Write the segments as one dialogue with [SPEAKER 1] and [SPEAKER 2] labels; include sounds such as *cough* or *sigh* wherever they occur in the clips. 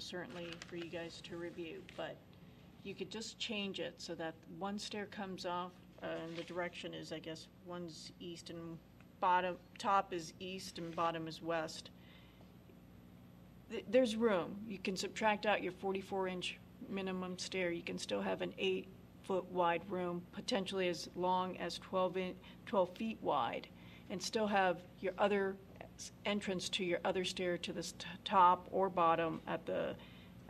[SPEAKER 1] certainly for you guys to review, but you could just change it so that one stair comes off, uh, and the direction is, I guess, one's east and bottom, top is east and bottom is west. Th- There's room. You can subtract out your 44-inch minimum stair. You can still have an eight-foot wide room, potentially as long as 12 in, 12 feet wide, and still have your other s- entrance to your other stair to the s- t- top or bottom at the,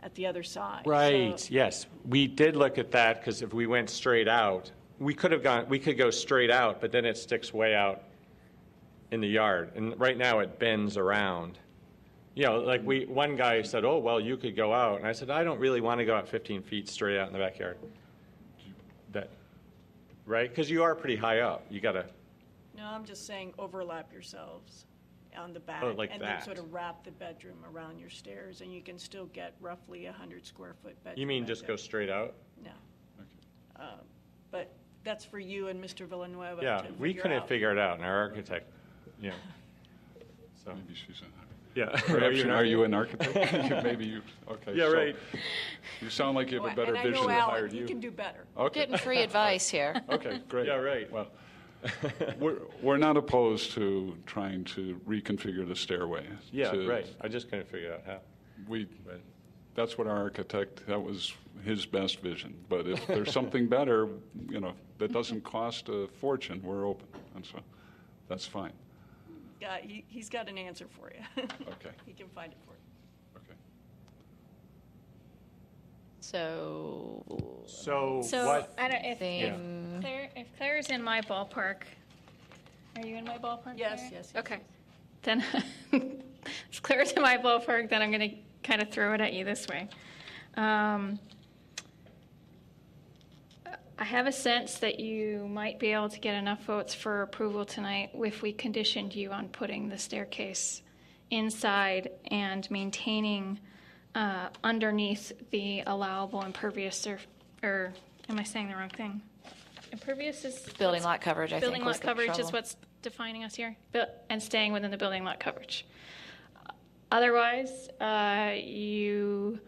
[SPEAKER 1] at the other side. So-
[SPEAKER 2] Right, yes. We did look at that because if we went straight out, we could have gone, we could go straight out, but then it sticks way out in the yard. And right now it bends around. You know, like we,
[SPEAKER 1] Mm-hmm.
[SPEAKER 2] one guy said, oh, well, you could go out. And I said, I don't really want to go out 15 feet straight out in the backyard. That, right? Because you are pretty high up. You gotta,
[SPEAKER 1] No, I'm just saying overlap yourselves on the back.
[SPEAKER 2] Oh, like
[SPEAKER 1] And then
[SPEAKER 2] that.
[SPEAKER 1] sort of wrap the bedroom around your stairs, and you can still get roughly a hundred square foot bedroom.
[SPEAKER 2] you mean
[SPEAKER 1] back
[SPEAKER 2] just
[SPEAKER 1] there.
[SPEAKER 2] go straight out?
[SPEAKER 1] No. Um, But that's for you and Mr. Villanueva to
[SPEAKER 2] Yeah, we couldn't
[SPEAKER 1] out.
[SPEAKER 2] figure it out and our architect, you know.
[SPEAKER 1] *laughs*
[SPEAKER 2] So,
[SPEAKER 3] Maybe she's an architect.
[SPEAKER 2] yeah. *laughs*
[SPEAKER 3] Perhaps, you- are you an architect? *laughs* Maybe you, okay.
[SPEAKER 2] Yeah,
[SPEAKER 3] so
[SPEAKER 2] right.
[SPEAKER 3] You sound like you
[SPEAKER 1] Well,
[SPEAKER 3] have a better
[SPEAKER 1] and I know,
[SPEAKER 3] vision than
[SPEAKER 1] Alan,
[SPEAKER 3] hired
[SPEAKER 1] You can do
[SPEAKER 3] you.
[SPEAKER 1] better.
[SPEAKER 3] Okay,
[SPEAKER 4] Getting free advice here.
[SPEAKER 3] okay, great.
[SPEAKER 2] Yeah, right.
[SPEAKER 3] Well, we're, we're not opposed to trying to reconfigure the stairway.
[SPEAKER 2] Yeah,
[SPEAKER 3] to-
[SPEAKER 2] right. I just couldn't figure out how.
[SPEAKER 3] We,
[SPEAKER 2] But
[SPEAKER 3] that's what our architect, that was his best vision. But if
[SPEAKER 2] *laughs*
[SPEAKER 3] there's something better, you know, that doesn't cost a fortune, we're open. And so, that's fine.
[SPEAKER 1] Yeah, Uh, he, he's got an answer for you. *laughs*
[SPEAKER 3] Okay.
[SPEAKER 1] He can find it for you.
[SPEAKER 3] Okay.
[SPEAKER 4] So,
[SPEAKER 2] so,
[SPEAKER 5] So,
[SPEAKER 2] what?
[SPEAKER 5] I don't, if, if
[SPEAKER 4] thing,
[SPEAKER 5] Claire, if Claire's in my ballpark, are you in my ballpark?
[SPEAKER 1] Yes, yes.
[SPEAKER 5] Claire?
[SPEAKER 1] yes.
[SPEAKER 5] Okay. Then, *laughs* if Claire's in my ballpark, then I'm gonna kind of throw it at you this way. Um, I have a sense that you might be able to get enough votes for approval tonight if we conditioned you on putting the staircase inside and maintaining uh, underneath the allowable impervious surf, or, am I saying the wrong thing? Impervious is.
[SPEAKER 4] building lot coverage, I think,
[SPEAKER 5] Building
[SPEAKER 4] was
[SPEAKER 5] lot
[SPEAKER 4] the
[SPEAKER 5] coverage is
[SPEAKER 4] trouble.
[SPEAKER 5] what's defining us here, bu- and staying within the building lot coverage. Otherwise, uh, you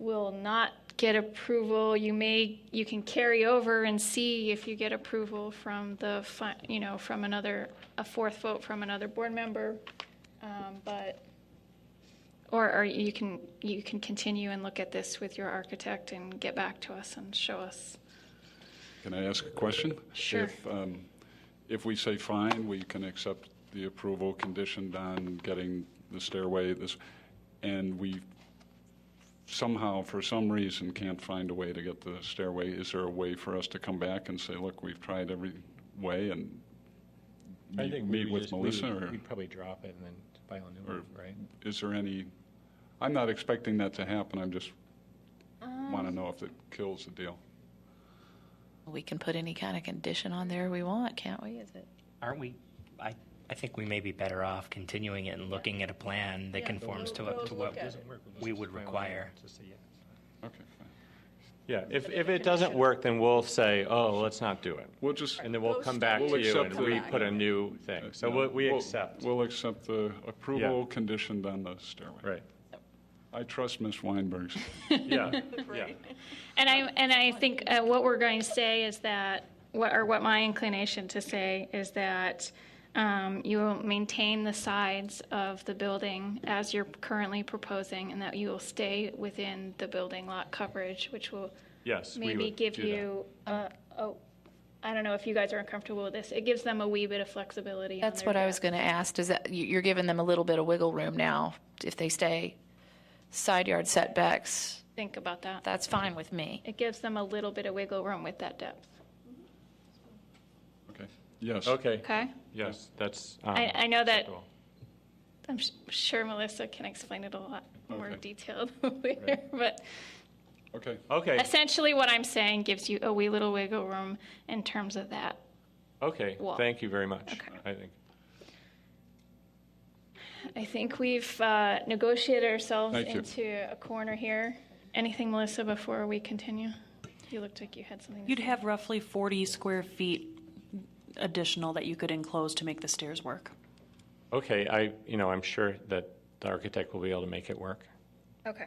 [SPEAKER 5] will not get approval. You may, you can carry over and see if you get approval from the, fi- you know, from another, a fourth vote from another board member, um, but, or, or you can, you can continue and look at this with your architect and get back to us and show us.
[SPEAKER 3] Can I ask a question?
[SPEAKER 5] Sure.
[SPEAKER 3] If, um, If we say fine, we can accept the approval conditioned on getting the stairway, this, and we somehow, for some reason, can't find a way to get the stairway, is there a way for us to come back and say, look, we've tried every way and
[SPEAKER 6] I
[SPEAKER 3] meet
[SPEAKER 6] think we
[SPEAKER 3] meet
[SPEAKER 6] would
[SPEAKER 3] with
[SPEAKER 6] just- we would-
[SPEAKER 3] Melissa, or
[SPEAKER 6] We'd probably drop it and then file a new
[SPEAKER 3] or-
[SPEAKER 6] one, right?
[SPEAKER 3] is there any, I'm not expecting that to happen, I'm just want to know if it kills the deal.
[SPEAKER 4] We can put any kind of condition on there we want, can't we? Is it?
[SPEAKER 7] Aren't we, I, I think we may be better off continuing it and looking at a plan that
[SPEAKER 1] Yeah,
[SPEAKER 7] conforms
[SPEAKER 1] we'll-
[SPEAKER 7] to
[SPEAKER 1] we'll
[SPEAKER 7] what, to
[SPEAKER 1] look
[SPEAKER 7] what
[SPEAKER 1] at
[SPEAKER 7] was-
[SPEAKER 1] it.
[SPEAKER 7] we would require.
[SPEAKER 3] Okay, fine.
[SPEAKER 2] Yeah, if, if it doesn't work, then we'll say, oh, let's not do it.
[SPEAKER 3] We'll just.
[SPEAKER 2] And then we'll
[SPEAKER 1] Those
[SPEAKER 2] come back
[SPEAKER 3] We'll
[SPEAKER 2] to you
[SPEAKER 3] accept
[SPEAKER 2] and
[SPEAKER 3] the-
[SPEAKER 2] we put a new thing. So we, we
[SPEAKER 3] We'll-
[SPEAKER 2] accept.
[SPEAKER 3] We'll accept the approval conditioned on the stairway.
[SPEAKER 5] *laughs*
[SPEAKER 2] Right.
[SPEAKER 3] I trust Ms. Weinberg's.
[SPEAKER 2] Yeah, yeah.
[SPEAKER 1] Right.
[SPEAKER 5] And I, and I think uh, what we're going to say is that, what, or what my inclination to say is that um, you will maintain the sides of the building as you're currently proposing, and that you will stay within the building lot coverage, which will
[SPEAKER 2] Yes, we
[SPEAKER 5] maybe
[SPEAKER 2] would
[SPEAKER 5] give
[SPEAKER 2] do that.
[SPEAKER 5] you, uh, oh, I don't know if you guys are uncomfortable with this, it gives them a wee bit of flexibility. on
[SPEAKER 4] That's
[SPEAKER 5] their
[SPEAKER 4] what I
[SPEAKER 5] job.
[SPEAKER 4] was going to ask. Does that you- you're giving them a little bit of wiggle room now if they stay side yard setbacks?
[SPEAKER 5] Think about that.
[SPEAKER 4] That's fine with me.
[SPEAKER 5] It gives them a little bit of wiggle room with that depth,
[SPEAKER 3] Okay. Yes.
[SPEAKER 2] Okay,
[SPEAKER 5] okay?
[SPEAKER 2] yes, that's.
[SPEAKER 5] I,
[SPEAKER 2] um,
[SPEAKER 5] I know that
[SPEAKER 2] acceptable.
[SPEAKER 5] I'm s- sure Melissa can explain it a lot more
[SPEAKER 3] Okay.
[SPEAKER 5] detailed *laughs* later, but
[SPEAKER 3] Okay.
[SPEAKER 2] Okay,
[SPEAKER 5] essentially what I'm saying gives you a wee little wiggle room in terms of that.
[SPEAKER 2] okay,
[SPEAKER 5] Well,
[SPEAKER 2] thank you very much,
[SPEAKER 5] okay.
[SPEAKER 2] I think.
[SPEAKER 5] I think we've uh, negotiated ourselves
[SPEAKER 3] Thank you.
[SPEAKER 5] into a corner here. Anything, Melissa, before we continue? You looked like you had something to
[SPEAKER 8] You'd
[SPEAKER 5] say.
[SPEAKER 8] have roughly 40 square feet additional that you could enclose to make the stairs work.
[SPEAKER 2] Okay, I, you know, I'm sure that the architect will be able to make it work.
[SPEAKER 5] Okay.